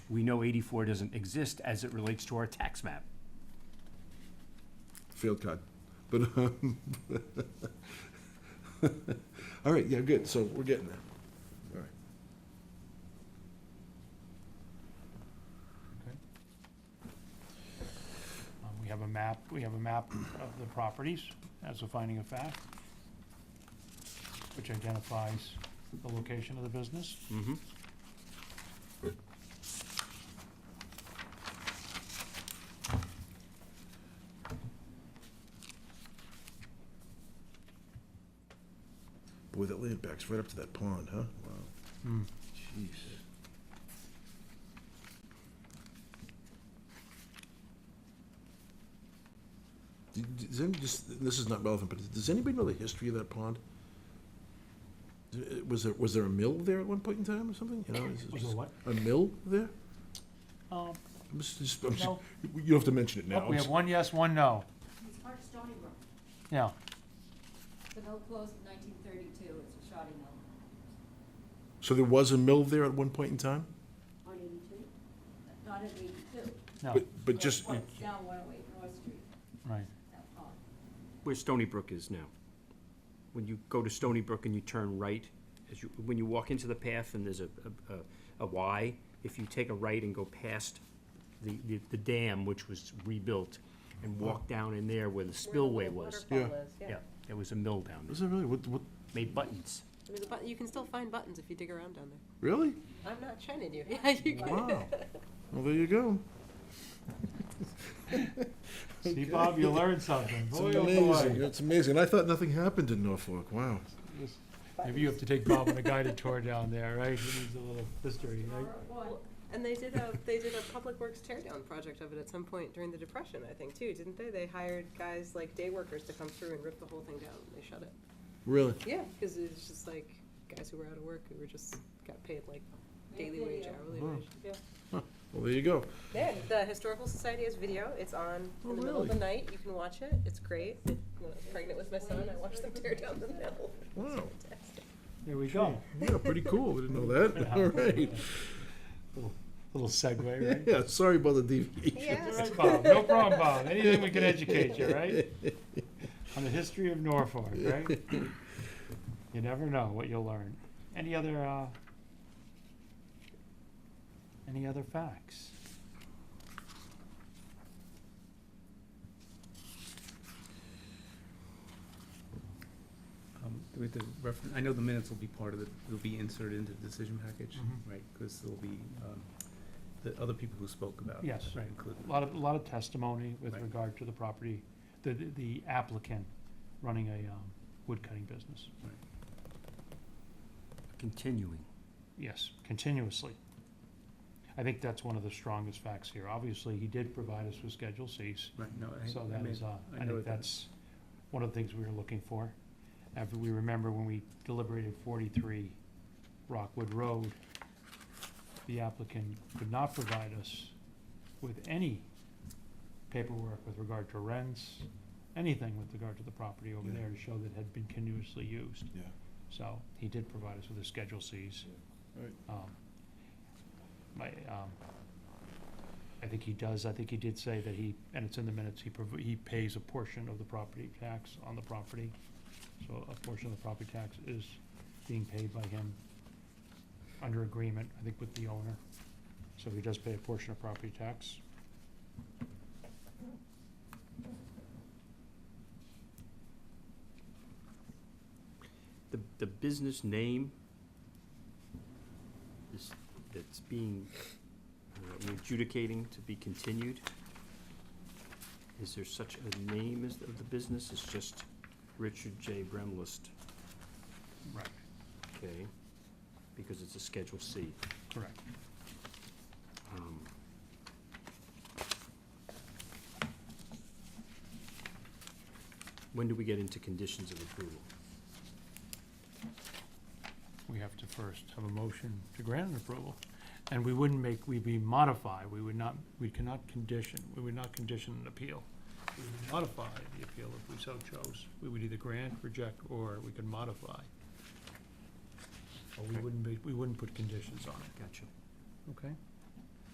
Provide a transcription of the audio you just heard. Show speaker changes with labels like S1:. S1: we know eighty-four doesn't exist as it relates to our tax map.
S2: field cod. But, um, all right, yeah, good, so we're getting there. All right.
S3: Um, We have a map, we have a map of the properties as a finding of fact, which identifies the location of the business.
S1: Mm-hmm.
S2: Boy, that land backs right up to that pond, huh? Wow,
S3: Hmm.
S2: jeez. Do- do- Does any, just, this is not relevant, but does anybody know the history of that pond? Uh, Was there, was there a mill there at one point in time or something? You know, is it
S3: Was there
S2: just-
S3: what?
S2: A mill there?
S3: Um,
S2: I'm just- just- I'm just-
S3: No.
S2: You you don't have to mention it now.
S3: oh, We
S2: I'm
S3: have
S2: just-
S3: one yes, one no.
S4: It's part of Stony Brook.
S3: Yeah,
S4: The mill closed in nineteen thirty-two, it's a shoddy mill.
S2: So there was a mill there at one point in time?
S4: On eighty-two? Not in eighty-two.
S3: no,
S2: But, but just,
S4: It's down one oh eight North Street,
S3: right.
S4: that pond.
S1: Where Stony Brook is now. When you go to Stony Brook and you turn right, as you, when you walk into the path and there's a, a- a, a Y, if you take a right and go past the, the, the dam, which was rebuilt, and walk down in there where the spillway was.
S2: Yeah.
S1: Yeah, there was a mill down there,
S2: was it really, what, what,
S1: made buttons.
S5: There's a button, you can still find buttons if you dig around down there.
S2: really?
S5: I'm not shining you. Yeah, you can.
S2: Wow. Well, there you go.
S3: See, Bob, you learned something.
S2: It's
S3: Boy, oh, boy.
S2: amazing, it's amazing. And I thought nothing happened in Norfolk, wow.
S3: Yes. Maybe you have to take Bob on a guided tour down there, right? He needs a little history, right?
S4: Or one,
S5: And they did a, they did a public works teardown project of it at some point during the depression, I think, too, didn't they? They hired guys like day workers to come through and rip the whole thing down, and they shut it.
S2: Really?
S5: Yeah, because it was just like guys who were out of work who were just, got paid like
S4: Yeah,
S5: daily wage,
S4: video.
S5: hourly
S2: Wow.
S5: wage, yeah.
S2: Well, there you go.
S5: Yeah, the Historical Society has video, it's on
S2: Oh,
S5: in the middle of the
S2: really?
S5: night, you can watch it, it's great. When I was pregnant with my son, I watched them tear down the mill.
S2: Wow.
S3: There we go.
S2: Yeah, pretty cool. I didn't know that. All right.
S3: Little- Little segue, right?
S2: Yeah, sorry about the deviation.
S3: All right, Bob, no problem, Bob, anything we can educate you, right? On the history of Norfolk, right? You never know what you'll learn. Any other, uh, any other facts?
S6: Um, do we have to refer- I know the minutes will be part of the, will be inserted into the decision package,
S3: Mhm.
S6: right? Because there'll be, um, the other people who spoke about.
S3: Yes, right.
S6: Included.
S3: A lot of, a lot of testimony with
S6: Right.
S3: regard to the property, the, the- the applicant running a, um, wood cutting business.
S1: Continuing.
S3: Yes, continuously. I think that's one of the strongest facts here. Obviously, he did provide us with Schedule Cs.
S6: Right, no, I.
S3: So
S6: I
S3: that
S6: made-
S3: is, uh,
S6: I
S3: I
S6: know
S3: think
S6: that.
S3: that's one of the things we were looking for. After we remember when we deliberated forty-three Rockwood Road, the applicant could not provide us with any paperwork with regard to rents, anything with regard to the property over
S2: Yeah.
S3: there to show that it had been continuously used.
S2: Yeah.
S3: So he did provide us with the Schedule Cs.
S2: Yeah. Right.
S3: Um, My, um, I think he does, I think he did say that he, and it's in the minutes, he, prov- he pays a portion of the property tax on the property. So a portion of the property tax is being paid by him under agreement, I think, with the owner. So he does pay a portion of property tax.
S1: The, the business name is, that's being, uh, we're adjudicating to be continued. Is there such a name as, of the business? It's just Richard J. Bremlist,
S3: Right.
S1: okay? Because it's a Schedule C.
S3: Correct.
S1: Um, When do we get into conditions of approval?
S3: We have to first have a motion to grant an approval. And we wouldn't make, we'd be modify, we would not, we cannot condition, we would not condition an appeal. We would modify the appeal if we so chose. We would either grant, reject, or we could modify. Or we
S1: Okay.
S3: wouldn't be, we wouldn't put conditions on it,
S1: Gotcha.
S3: okay?